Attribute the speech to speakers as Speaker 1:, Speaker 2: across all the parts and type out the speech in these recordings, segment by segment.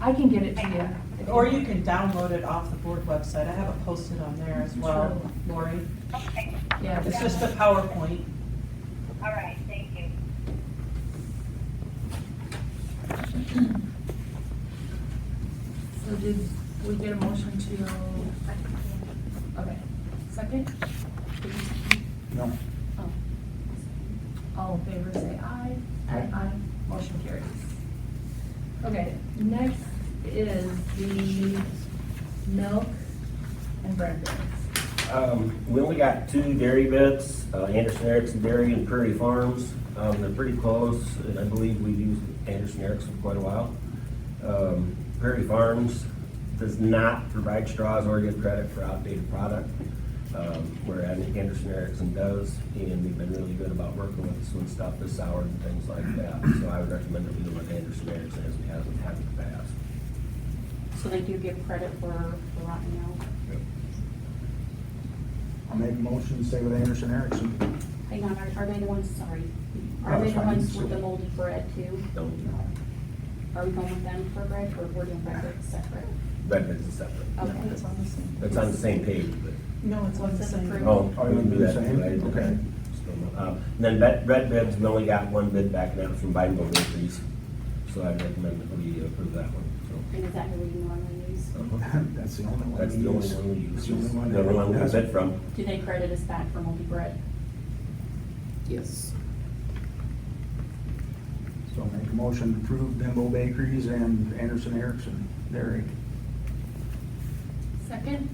Speaker 1: I can get it to you. if
Speaker 2: Or you
Speaker 1: want.
Speaker 2: can download it off the board website. I have it posted on there as well, Lori.
Speaker 3: Okay,
Speaker 1: Yeah,
Speaker 2: It's just a PowerPoint.
Speaker 3: all right, thank you.
Speaker 1: so did we get a motion to, okay, second?
Speaker 4: No.
Speaker 1: Oh. All in favor, say aye.
Speaker 4: Aye.
Speaker 1: Motion carries. Okay, next is the milk and bread bids.
Speaker 4: Um, we only got two dairy bids, uh, Anderson Erickson Dairy and Prairie Farms. Um, they're pretty close, and I believe we've used Anderson Erickson for quite a while. Um, Prairie Farms does not provide straws or give credit for outdated product, um, whereas Anderson Erickson does, and they've been really good about working with us when stuff is sour and things like that. So I would recommend that we go with Anderson Erickson as we have in the past.
Speaker 5: So they do give credit for for rotten milk.
Speaker 6: I'll make a motion, stay with Anderson Erickson.
Speaker 5: Hang on, are, are they the ones, sorry,
Speaker 6: Oh,
Speaker 5: are they the
Speaker 6: fine.
Speaker 5: ones with the moldy bread too?
Speaker 4: Don't,
Speaker 5: Are we going with them for bread or we're doing bread that's separate?
Speaker 4: red bids is separate.
Speaker 5: Okay.
Speaker 2: It's on the same.
Speaker 4: It's on the same page, but.
Speaker 2: No, it's on the
Speaker 5: It's
Speaker 2: same.
Speaker 5: approved.
Speaker 4: Oh,
Speaker 6: Oh,
Speaker 4: I
Speaker 6: you
Speaker 4: wouldn't do that.
Speaker 6: the same?
Speaker 4: I didn't.
Speaker 6: Okay.
Speaker 4: Um, Then Red Red Bibs, we only got one bid back now from Biden Groceries, so I recommend that we approve that one, so.
Speaker 5: And is that who we normally use?
Speaker 4: uh-huh.
Speaker 6: That's the only one.
Speaker 4: That's
Speaker 6: we
Speaker 4: the only
Speaker 6: use.
Speaker 4: one we use,
Speaker 6: It's
Speaker 4: the
Speaker 6: the only one.
Speaker 4: only one we
Speaker 6: that-
Speaker 4: bid from.
Speaker 5: Do they credit us back for moldy bread?
Speaker 7: Yes.
Speaker 6: So I'll make a motion to approve Bimbo Bakeries and Anderson Erickson Dairy.
Speaker 1: Second?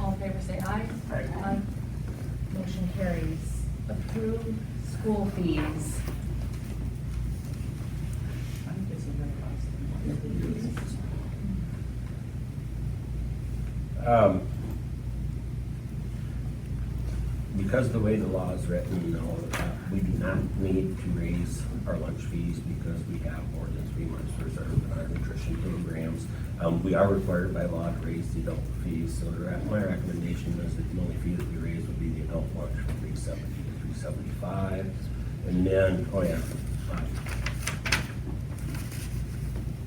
Speaker 1: All in favor, say aye.
Speaker 6: Aye.
Speaker 1: Motion carries. Approve school fees.
Speaker 2: I think it's a very last one.
Speaker 4: Um, Because of the way the law is written and all of that, we do not need to raise our lunch fees because we have more than three months reserved in our nutrition programs. Um, we are required by law to raise the adult fees, so the rec- my recommendation is that the only fee that we raise would be the adult lunch from three seventy to three seventy-five. And then, oh yeah. um,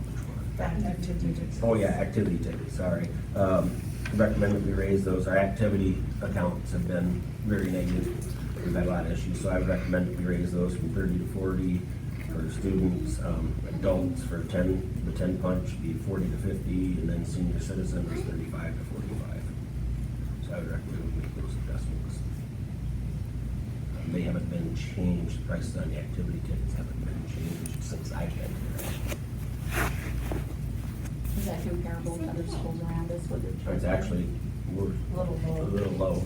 Speaker 4: which one?
Speaker 2: Back activity tickets.
Speaker 4: Oh, yeah, activity tickets, sorry. Um, Recommend that we raise those. Our activity accounts have been very negative. We've had a lot of issues, so I would recommend that we raise those from thirty to forty for students. Um, Adults for ten, the ten punch would be forty to fifty, and then senior citizen is thirty-five to forty-five. So I would recommend we make those adjustments. Um, They haven't been changed, prices on the activity tickets haven't been changed since I've been here.
Speaker 5: Is that comparable to other schools around us? What they're
Speaker 4: It's
Speaker 5: charging?
Speaker 4: actually, we're
Speaker 1: A little
Speaker 4: a
Speaker 1: low.
Speaker 4: little low.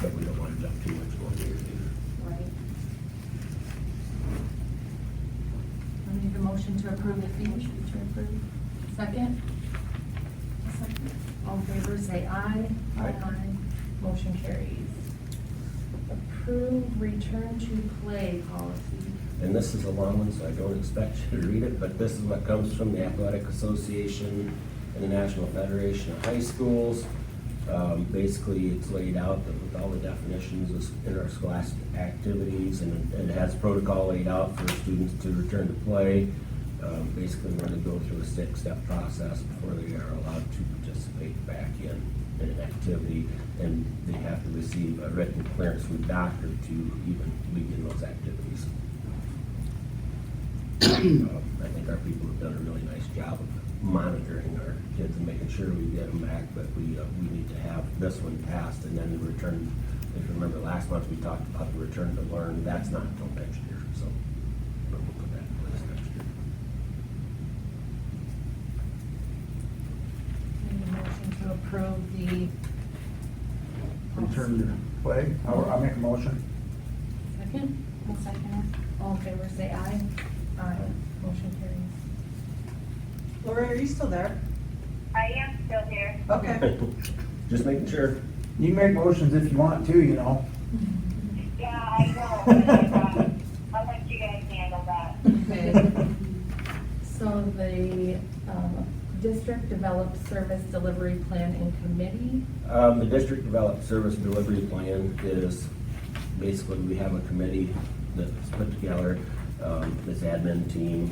Speaker 4: But we don't want to jump too much going here either.
Speaker 5: Right.
Speaker 1: I need a motion to approve the fee. Motion to approve. Second? All in favor, say aye.
Speaker 6: Aye.
Speaker 1: Motion carries. Approve return to play policy.
Speaker 4: And this is a long one, so I don't expect you to read it, but this is what comes from the Athletic Association and the National Federation of High Schools. Um, basically, it's laid out that with all the definitions of interscholastic activities and it- it has protocol laid out for students to return to play. Um, basically, we're gonna go through a six-step process before they are allowed to participate back in an activity. And they have to receive a written clearance from a doctor to even begin those activities. Um, I think our people have done a really nice job of monitoring our kids and making sure we get them back, but we, uh, we need to have this one passed and then the return. If you remember last month, we talked about the return to learn, that's not until next year, so but we'll put that in place next year.
Speaker 1: Need a motion to approve the.
Speaker 6: Return to play. I'll, I'll make a motion.
Speaker 1: Second?
Speaker 5: I'll second
Speaker 1: All in favor, say aye. Aye. Motion carries.
Speaker 2: Lori, are you still there?
Speaker 3: I am still here.
Speaker 2: Okay.
Speaker 4: Just making sure.
Speaker 6: You can make motions if you want to, you know.
Speaker 3: Yeah, I know. but, uh, I'll let you guys handle that.
Speaker 1: Okay. So the, um, district developed service delivery plan in committee.
Speaker 4: Um, the district developed service delivery plan is, basically, we have a committee that's put together, um, this admin team,